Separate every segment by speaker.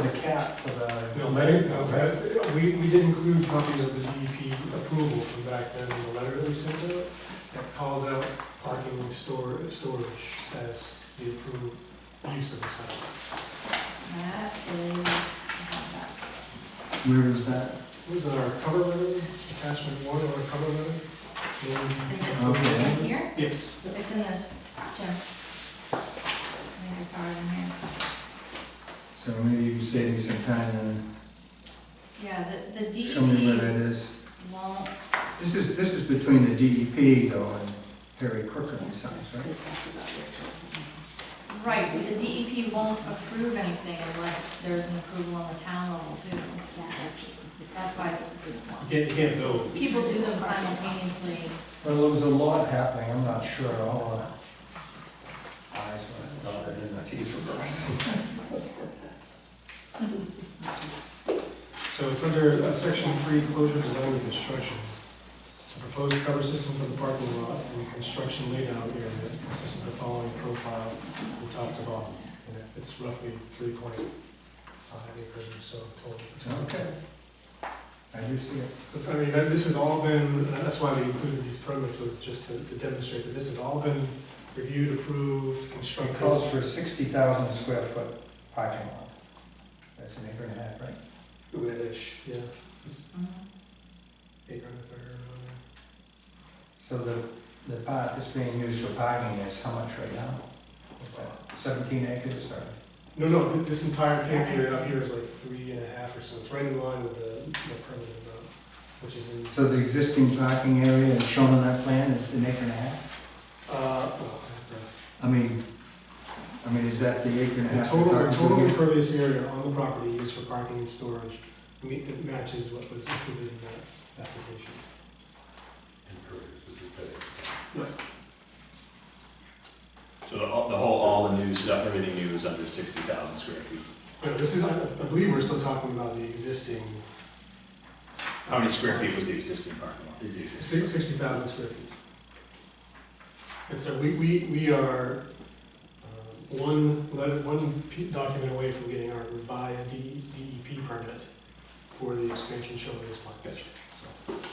Speaker 1: the cap for the.
Speaker 2: No, letter, no, that- we, we did include copies of the DEP approval from back then, in the letter that we sent out, that calls out parking and store, storage as the approved use of the site.
Speaker 3: That is, I have that.
Speaker 1: Where is that?
Speaker 2: It was in our cover letter, attachment one of our cover letter. and-
Speaker 3: Is
Speaker 1: Okay.
Speaker 3: it in here?
Speaker 2: Yes,
Speaker 3: It's in this, Jim. I think I saw it in here.
Speaker 1: So maybe you can save me some time and
Speaker 3: Yeah, the, the
Speaker 1: show me where
Speaker 3: DEP
Speaker 1: that is.
Speaker 3: won't,
Speaker 1: This is, this is between the DEP though and Harry Crooker and Sons, right?
Speaker 3: right, but the DEP won't approve anything unless there's an approval on the town level too. That's why
Speaker 2: you can't, you can't build.
Speaker 3: people do them simultaneously.
Speaker 1: Well, there was a lot happening, I'm not sure, all uh eyes were dotted and the T's were crossed.
Speaker 2: So it's under uh, section three, closure, design, and construction. The Proposed cover system for the parking lot and construction laydown area consists of the following profile from top to bottom. And It's roughly three point five acres or so total.
Speaker 1: Okay. I do see it.
Speaker 2: So, I mean, that- this has all been, that's why we included these permits, was just to to demonstrate that this has all been reviewed, approved,
Speaker 1: It
Speaker 2: constructed.
Speaker 1: calls for sixty thousand square foot parking lot. That's an acre and a half, right?
Speaker 2: Ish, yeah,
Speaker 3: Mhm.
Speaker 2: acre and a third around there.
Speaker 1: So the, the part that's being used for parking is how much right now? Is that Seventeen acres or?
Speaker 2: No, no, th- this entire thing here, up here is like three and a half or so, it's right in line with the, the permanent amount, which is in,
Speaker 1: So the existing parking area is shown on that plan is an acre and a half?
Speaker 2: uh, well, I
Speaker 1: I mean, I mean, is that the acre and a
Speaker 2: have
Speaker 1: half?
Speaker 2: to-
Speaker 1: we're
Speaker 2: total, the
Speaker 1: talking
Speaker 2: total
Speaker 1: about?
Speaker 2: impervious area on the property used for parking and storage meet- it matches what was included in that application.
Speaker 4: So the, the whole, all the new stuff, everything new is under sixty thousand square feet.
Speaker 2: But this is, I I believe we're still talking about the existing
Speaker 4: How many square feet was the existing parking lot? Is the existing?
Speaker 2: sixty thousand square feet. And so we, we, we are uh, one, letter- one p- document away from getting our revised D- DEP permit for the expansion shown in this plan.
Speaker 4: Yes.
Speaker 2: So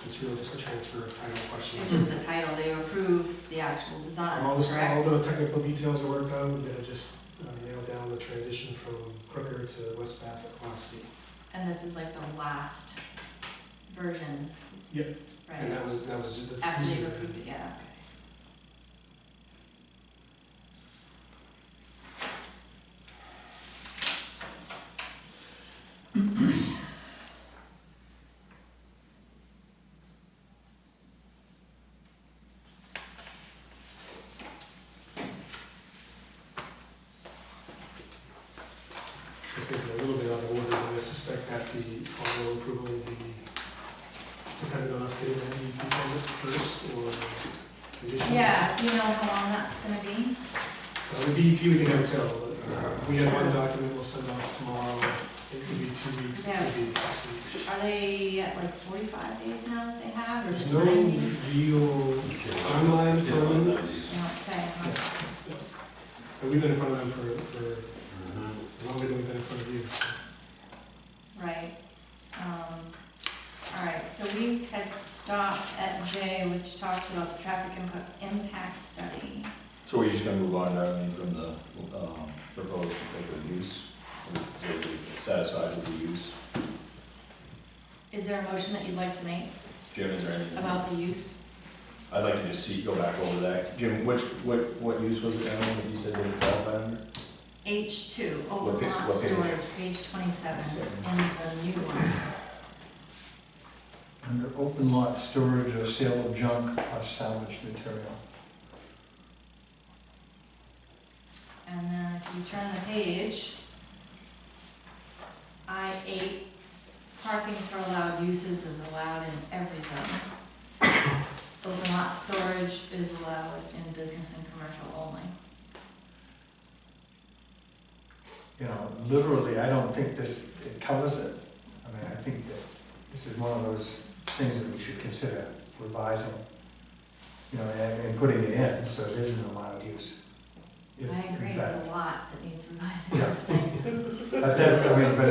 Speaker 2: it's really just a transfer of title
Speaker 3: It's
Speaker 2: questions.
Speaker 3: just the title, they approve the actual design,
Speaker 2: All this, all
Speaker 3: correct?
Speaker 2: the technical details are worked out, we're gonna just uh, nail down the transition from Crooker to West Bath across Sea.
Speaker 3: And this is like the last version.
Speaker 2: Yep. And
Speaker 3: Right,
Speaker 2: that was, that was just. that's
Speaker 3: after
Speaker 2: easy.
Speaker 3: they've approved it, yeah, okay.
Speaker 2: It's gonna be a little bit out of order, but I suspect that the final approval will be dependent on us getting the DEP permit first or conditional.
Speaker 3: Yeah, do you know how long that's gonna be?
Speaker 2: Uh, The DEP, we can never tell, but uh, we have one document we'll send out tomorrow. It could be two weeks, it could be six weeks.
Speaker 3: Are they at like forty-five days now that they have, or is
Speaker 2: There's
Speaker 3: it
Speaker 2: no
Speaker 3: ninety?
Speaker 2: real timeline for this.
Speaker 3: They don't say, huh?
Speaker 2: And we've been in front of them for, for longer than we've been in front of you. so.
Speaker 3: right? Um, all right, so we had stopped at J, which talks about the traffic impa- impact study.
Speaker 4: So we're just gonna move on directly from the, um, proposed proposed use? Are we Satisfied with the use?
Speaker 3: Is there a motion that you'd like to make
Speaker 4: Jim, is there anything?
Speaker 3: about the use?
Speaker 4: I'd like to just see, go back over that. Jim, which, what, what use was it, Alan, that you said that it qualified under?
Speaker 3: H two,
Speaker 4: What
Speaker 3: open
Speaker 4: pa-
Speaker 3: lot
Speaker 4: what page?
Speaker 3: storage, page twenty-seven, in the new one.
Speaker 1: Under open lot storage or sale of junk or salvage material.
Speaker 3: And then if you turn the page, I eight, parking for allowed uses is allowed in every zone. Open lot storage is allowed in business and commercial only.
Speaker 1: You know, literally, I don't think this, it covers it. I mean, I think that this is one of those things that we should consider revising, you know, and, and putting it in, so it isn't allowed use.
Speaker 3: I
Speaker 1: If, in
Speaker 3: agree,
Speaker 1: fact-
Speaker 3: there's a lot that needs revising,
Speaker 1: Yeah.
Speaker 3: I was thinking.
Speaker 1: But that's, I mean, but